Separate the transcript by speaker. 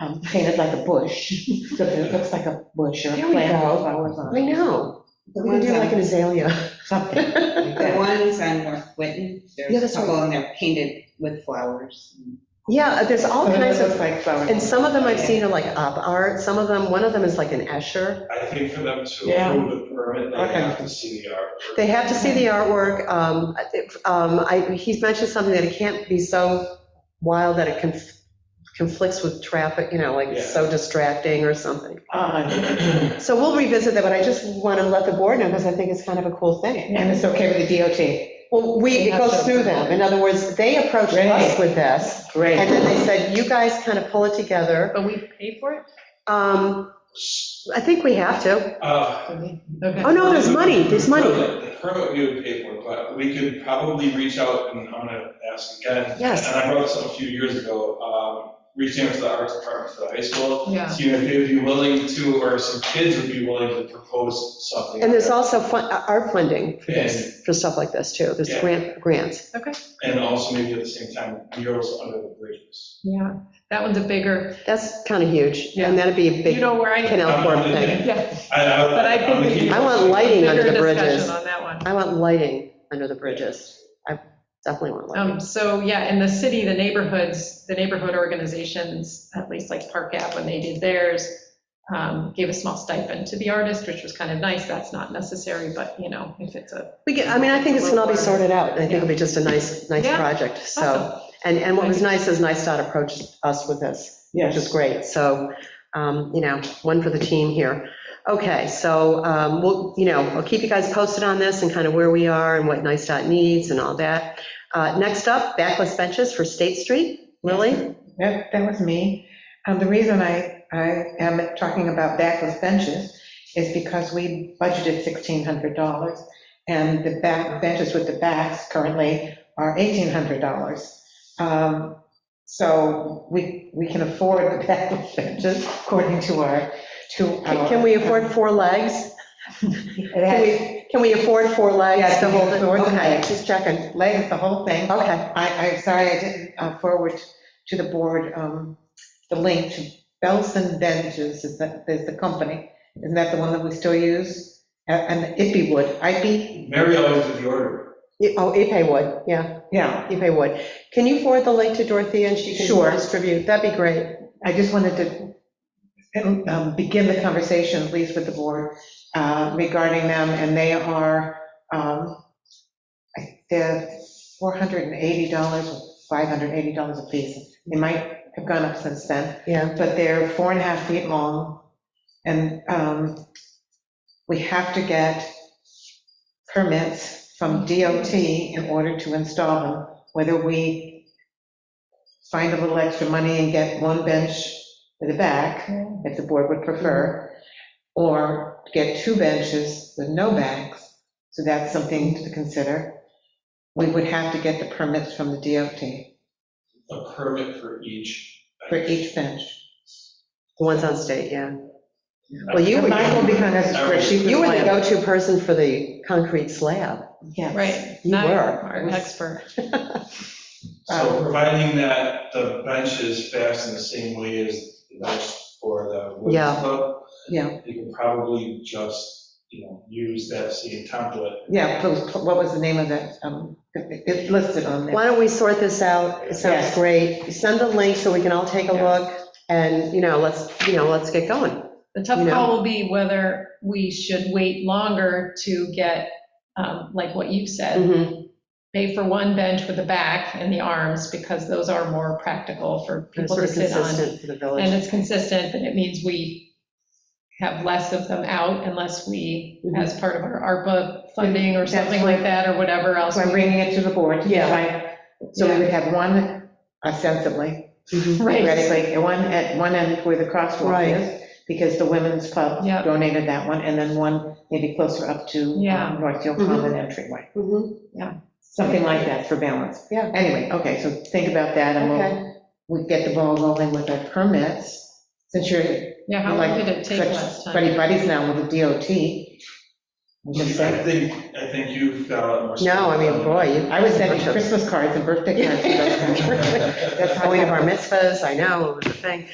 Speaker 1: um, painted like a bush, so that it looks like a bush or a
Speaker 2: There we
Speaker 1: plant
Speaker 2: go.
Speaker 1: with flowers on
Speaker 2: I
Speaker 1: it,
Speaker 2: know.
Speaker 3: The
Speaker 2: We
Speaker 3: ones
Speaker 2: do like
Speaker 3: on,
Speaker 2: an azalea.
Speaker 1: something.
Speaker 3: the ones on North Whitten,
Speaker 2: Yeah,
Speaker 3: there's
Speaker 2: that's
Speaker 3: a couple and they're painted with flowers.
Speaker 2: Yeah, uh, there's all
Speaker 1: So that it
Speaker 2: kinds of,
Speaker 1: looks like flowers.
Speaker 2: and some of them I've seen are like op art, some of them, one of them is like an Escher.
Speaker 4: I think for them to
Speaker 1: Yeah.
Speaker 4: approve the permit, they
Speaker 1: Okay.
Speaker 4: have to see the artwork.
Speaker 2: They have to see the artwork. Um, it- um, I, he's mentioned something that it can't be so wild that it conf- conflicts with traffic, you know, like it's so distracting or something.
Speaker 1: Uh,
Speaker 2: So we'll revisit that, but I just want to let the board know because I think it's kind of a cool thing.
Speaker 1: And it's okay with the DOT,
Speaker 2: Well, we, it goes through them. In other words, they approached us
Speaker 1: Right.
Speaker 2: with this and
Speaker 1: great.
Speaker 2: then they said, you guys kind of pull it together.
Speaker 5: But we pay for it?
Speaker 2: Um, I think we have to.
Speaker 4: Uh,
Speaker 2: Oh, no, there's money, there's money.
Speaker 4: The permit we would pay for, but we could probably reach out, and I'm gonna ask again.
Speaker 2: Yes.
Speaker 4: And I brought this up a few years ago, um, reaching out to the arts department for the high school,
Speaker 5: Yeah.
Speaker 4: see if they'd be willing to, or some kids would be willing to propose something.
Speaker 2: And there's also fun, our funding for
Speaker 4: And,
Speaker 2: this, for stuff like this too. There's
Speaker 4: Yeah.
Speaker 2: grant, grants.
Speaker 4: and also maybe at the same time, murals under the bridges.
Speaker 5: Yeah, that one's a bigger,
Speaker 2: That's kind of huge.
Speaker 5: Yeah.
Speaker 2: And that'd be a
Speaker 5: you
Speaker 2: big
Speaker 5: know where I,
Speaker 2: canal
Speaker 4: I'm-
Speaker 2: corp
Speaker 4: I'm-
Speaker 2: thing.
Speaker 5: yeah,
Speaker 4: I, I.
Speaker 5: but I
Speaker 4: I'm
Speaker 5: think. we-
Speaker 4: the-
Speaker 2: I want lighting under
Speaker 5: Bigger
Speaker 2: the
Speaker 5: discussion
Speaker 2: bridges.
Speaker 5: On that one.
Speaker 2: I want lighting under the bridges. I definitely want lighting.
Speaker 5: Um, so, yeah, in the city, the neighborhoods, the neighborhood organizations, at least like Park Ave, when they did theirs, um, gave a small stipend to the artist, which was kind of nice. That's not necessary, but you know, if it's a.
Speaker 2: We get, I mean, I think this can all be sorted out. and I think it'll be just a nice, nice
Speaker 5: Yeah.
Speaker 2: project, so.
Speaker 5: Awesome.
Speaker 2: And, and what was nice is NISTOD approached us with this, which is
Speaker 1: Yes,
Speaker 2: great. So, um, you know, one for the team here. Okay, so um, we'll, you know, I'll keep you guys posted on this and kind of where we are and what NISTOD needs and all that. Uh, Next up, backless benches for State Street. Lily?
Speaker 6: That, that was me. Um, the reason I, I am talking about backless benches is because we budgeted $1,600, and the back benches with the backs currently are $1,800. Um, So we, we can afford the backless benches according to our, to
Speaker 2: Can
Speaker 6: our.
Speaker 2: can we afford four legs?
Speaker 6: It
Speaker 2: Can
Speaker 6: has
Speaker 2: we, can we afford four legs
Speaker 6: Yes,
Speaker 2: to
Speaker 6: we
Speaker 2: hold
Speaker 6: can
Speaker 2: it?
Speaker 6: afford the
Speaker 2: Okay,
Speaker 6: legs.
Speaker 2: just checking.
Speaker 6: legs, the whole thing.
Speaker 2: Okay,
Speaker 6: I, I'm sorry, I didn't uh, forward to the board um, the link to Belson Benches, is that, is the company. Isn't that the one that we still use? A- And Ippy Wood, Ippy,
Speaker 4: Mary always did the order.
Speaker 2: You- oh, Ipe would, yeah,
Speaker 6: yeah.
Speaker 2: Ipe would. Can you forward the link to Dorothea and she
Speaker 6: Sure.
Speaker 2: can distribute? That'd be great.
Speaker 6: I just wanted to um, begin the conversation, at least with the board, uh, regarding them, and they are, um, I- they're $480 or $580 a piece. They might have gone up since then.
Speaker 2: Yeah.
Speaker 6: but they're four and a half feet long. And um, we have to get permits from DOT in order to install them, whether we find a little extra money and get one bench for the back, if the board would prefer, or get two benches with no backs, so that's something to consider. We would have to get the permits from the DOT
Speaker 4: a permit for each.
Speaker 6: for each bench.
Speaker 2: The ones on state, yeah. Well, you were,
Speaker 6: Mine will be kind of a spreadsheet.
Speaker 2: you were the
Speaker 6: plan.
Speaker 2: go-to person for the concrete slab.
Speaker 6: Yes.
Speaker 5: Right.
Speaker 2: You
Speaker 5: Not
Speaker 2: were.
Speaker 5: Our expert.
Speaker 4: Um, So providing that the bench is fast in the same way as the bench for the
Speaker 2: Yeah.
Speaker 4: women's club.
Speaker 6: Yeah.
Speaker 4: You can probably just, you know, use that same template.
Speaker 6: Yeah, those- what was the name of that? um, It's listed on there.
Speaker 2: Why don't we sort this out? It sounds
Speaker 6: Yes.
Speaker 2: great. Send a link so we can all take a
Speaker 6: Yes.
Speaker 2: look and, you know, let's, you know, let's get going.
Speaker 5: The tough
Speaker 2: you know?
Speaker 5: call will be whether we should wait longer to get, um, like what you said,
Speaker 2: Mhm.
Speaker 5: pay for one bench with the back and the arms, because those are more practical for
Speaker 2: It's
Speaker 5: people
Speaker 2: sort
Speaker 5: to
Speaker 2: of
Speaker 5: sit on.
Speaker 2: consistent for the
Speaker 5: And
Speaker 2: village.
Speaker 5: it's consistent, and it means we have less of them out unless we,
Speaker 2: Mhm.
Speaker 5: as part of our ARPA funding or
Speaker 6: That's
Speaker 5: something like that, or whatever else.
Speaker 6: So I'm bringing it to the board.
Speaker 2: Yeah.
Speaker 6: Right. So we would have one ostensibly,
Speaker 2: Mhm.
Speaker 5: Right,
Speaker 6: theoretically, and one at one end where the crosswalk
Speaker 2: Right.
Speaker 6: is, because the women's club
Speaker 5: Yeah.
Speaker 6: donated that one, and then one maybe closer up to
Speaker 5: Yeah.
Speaker 6: um, Northfield
Speaker 2: Mhm.
Speaker 6: Common entryway.
Speaker 2: Mhm.
Speaker 6: Something like that for balance.
Speaker 2: Yeah.
Speaker 6: Anyway, okay, so think about that, and we'll,
Speaker 2: Okay.
Speaker 6: we get the ball rolling with our permits, since you're
Speaker 5: yeah, how long did it take
Speaker 6: Such
Speaker 5: last time?
Speaker 6: Buddy buddies now with the DOT. I'm
Speaker 4: I
Speaker 6: just saying.
Speaker 4: think, I think you've got a lot more.
Speaker 2: No, I mean, boy, you.
Speaker 6: I was sending Christmas cards and birthday cards to those guys.
Speaker 2: That's Halloween of our mitzvahs, I know, it was a thing.